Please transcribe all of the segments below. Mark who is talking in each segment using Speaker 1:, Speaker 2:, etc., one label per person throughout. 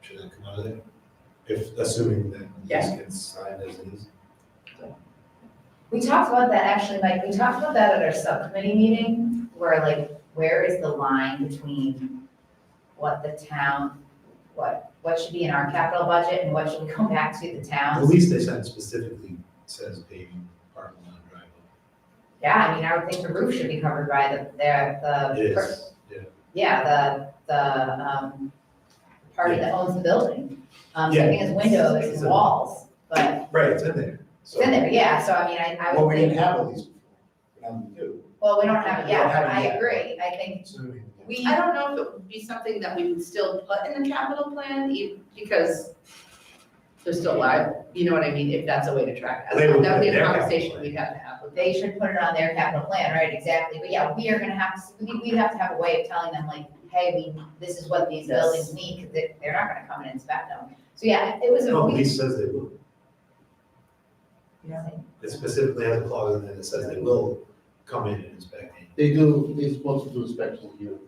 Speaker 1: Should that come out of there? If, assuming that this gets signed as is.
Speaker 2: We talked about that actually, Mike, we talked about that at our subcommittee meeting, where like, where is the line between what the town, what, what should be in our capital budget and what should we go back to the
Speaker 1: At
Speaker 2: towns?
Speaker 1: least they said specifically says paving, parking lot, driveway.
Speaker 2: Yeah, I mean, I would think the roof should be covered by the, their, the.
Speaker 1: It is, yeah.
Speaker 2: Yeah, the, the, um, party that owns the building. Um, so I think it's windows
Speaker 1: It's
Speaker 2: and
Speaker 1: in-
Speaker 2: walls, but
Speaker 1: Right, it's in there.
Speaker 2: it's in there, yeah, so I mean, I, I
Speaker 3: Well,
Speaker 2: would
Speaker 3: we didn't
Speaker 2: think,
Speaker 3: have all these before, but now we do.
Speaker 2: well, we don't have it
Speaker 3: We don't
Speaker 2: yet,
Speaker 3: have it
Speaker 2: I
Speaker 3: yet.
Speaker 2: agree, I think,
Speaker 3: So,
Speaker 4: We, I don't know if it would be something that we would still put in the capital plan, e- because they're still live, you know what I mean, if that's a way to track.
Speaker 1: They
Speaker 4: that.
Speaker 1: would
Speaker 4: That would be
Speaker 1: put it in their
Speaker 4: a
Speaker 1: capital
Speaker 4: conversation
Speaker 1: plan.
Speaker 4: we'd have to have with
Speaker 2: they should put it on their capital plan, right, exactly, but yeah, we are gonna have to, we, we have to have a way of telling them like, hey, we, this is what these
Speaker 4: Yes.
Speaker 2: buildings need, cause they, they're not gonna come and inspect them. So yeah, it was a,
Speaker 1: No, at
Speaker 2: we,
Speaker 1: least says they will. It specifically has a clause in there that says they will come in and inspect it.
Speaker 5: They do, they're supposed to do inspections here.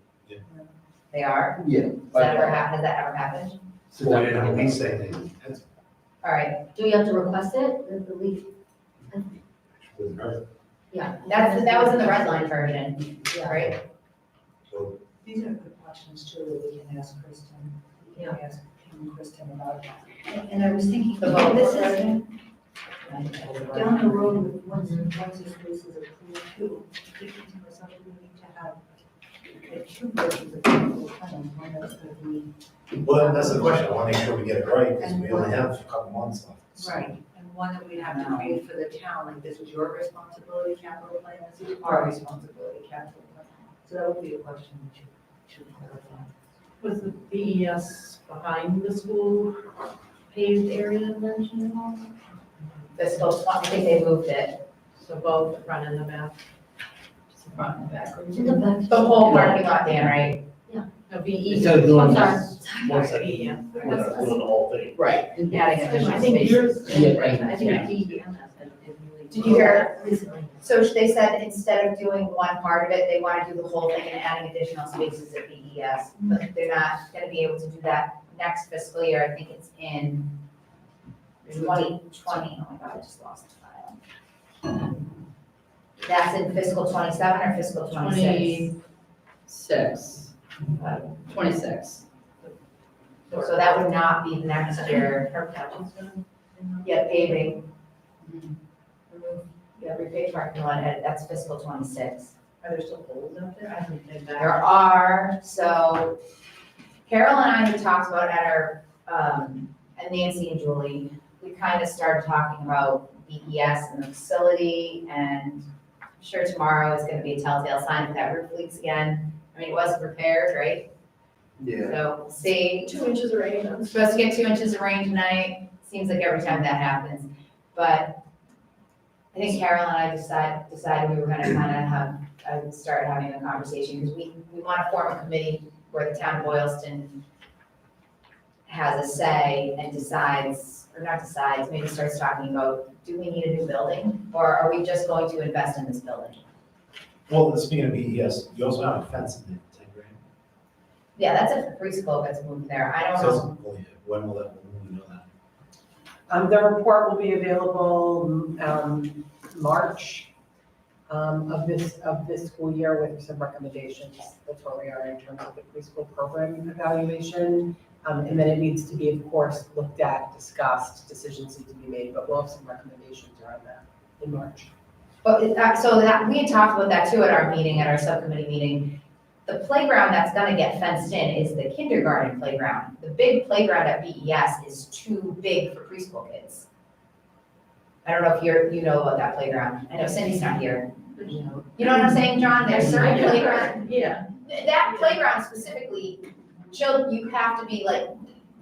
Speaker 2: they are,
Speaker 5: Yeah.
Speaker 2: has that ever hap, has that ever happened?
Speaker 1: Well, we didn't at least say they, that's,
Speaker 2: All right,
Speaker 6: Do we have to request it, or the leaf?
Speaker 1: wouldn't hurt.
Speaker 6: Yeah.
Speaker 2: that's, that was in the red line version, right?
Speaker 1: So,
Speaker 7: These are good questions too, that we can ask Kristen. We can ask Kim and Kristen about that.
Speaker 6: And and I was thinking,
Speaker 2: The vote
Speaker 6: this
Speaker 2: was
Speaker 6: is down the road, once, once this place is approved too, we need to have uh, two versions of the plan, one that's gonna be.
Speaker 3: Well, that's the question, I wanna make sure we get it right, because we only have a couple months left. so.
Speaker 7: Right, and one that we have to create for the town, like this is your responsibility capital plan, this is our responsibility capital plan. So that would be a question that you should clarify.
Speaker 8: Was the BES behind the school paved area mentioned at all?
Speaker 2: The school, I think they moved it,
Speaker 8: So both the front and the back?
Speaker 2: the front and the back.
Speaker 6: To the back.
Speaker 2: The whole parking lot, Dan, right?
Speaker 8: No, BE.
Speaker 5: Instead of doing
Speaker 6: I'm sorry.
Speaker 5: this, one second,
Speaker 8: BES.
Speaker 5: we're not doing the whole thing.
Speaker 8: Right. and
Speaker 2: Adding
Speaker 8: that's-
Speaker 2: additional
Speaker 8: I think yours.
Speaker 5: Yeah, right.
Speaker 8: I think
Speaker 7: DEM has been really.
Speaker 2: Did you hear?
Speaker 7: Recently.
Speaker 2: So they said instead of doing one part of it, they want to do the whole thing and adding additional spaces at BES. But they're not gonna be able to do that next fiscal year, I think it's in twenty twenty, oh my god, I just lost the file. That's in fiscal twenty-seven or fiscal twenty-six?
Speaker 4: Six. Twenty-six.
Speaker 2: So that would not be next year. Yeah, paving. Yeah, repay parking lot, and that's fiscal twenty-six.
Speaker 8: Are there still holes out there? I haven't been back.
Speaker 2: There are, so Carol and I had talked about at our, um, and Nancy and Julie, we kind of started talking about BES and the facility and I'm sure tomorrow is gonna be a telltale sign if that roof leaks again. I mean, it wasn't repaired, right?
Speaker 5: Yeah.
Speaker 2: So we'll see.
Speaker 8: Two inches of rain.
Speaker 2: I'm supposed to get two inches of rain tonight, seems like every time that happens, but I think Carol and I decided, decided we were gonna kinda have, uh, start having a conversation, because we, we wanna form a committee where the town of Boylston has a say and decides, or not decides, maybe starts talking about, do we need a new building, or are we just going to invest in this building?
Speaker 3: Well, speaking of BES, you also have a fence in there, ten grand.
Speaker 2: Yeah, that's if the preschool gets moved there, I don't
Speaker 1: so,
Speaker 2: know.
Speaker 1: it's- well, yeah, when will that, when will we know that?
Speaker 9: Um, the report will be available, um, March, um, of this, of this school year with some recommendations. That's where we are in terms of the preschool program evaluation. Um, and then it needs to be, of course, looked at, discussed, decisions need to be made, but we'll have some recommendations around that in March.
Speaker 2: But it- that, so that, we had talked about that too at our meeting, at our subcommittee meeting. The playground that's gonna get fenced in is the kindergarten playground. The big playground at BES is too big for preschool kids. I don't know if you're, you know about that playground. I know Cindy's not here.
Speaker 8: You know,
Speaker 2: You know what I'm saying, John? There's certain playground,
Speaker 8: Yeah.
Speaker 2: that playground specifically, children, you have to be like,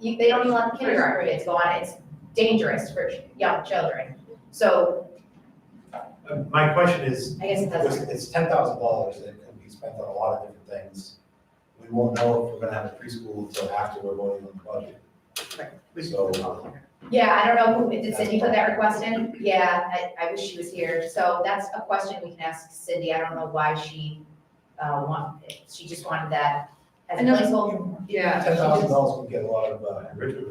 Speaker 2: you, they don't even let the kindergarten kids go on it. It's dangerous for young children. So
Speaker 3: Uh, My question is,
Speaker 2: I guess it doesn't.
Speaker 3: it's, it's ten thousand dollars that could be spent on a lot of different things. We won't know if we're gonna have a preschool until after we're voting on the budget. So,
Speaker 2: Yeah, I don't know, who did Cindy put that request in? Yeah, I, I wish she was here. So that's a question we can ask Cindy. I don't know why she, uh, want, she just wanted that as
Speaker 4: I know-
Speaker 2: a placeholder.
Speaker 4: Yeah.
Speaker 3: Ten thousand dollars would get a lot of uh, enrichment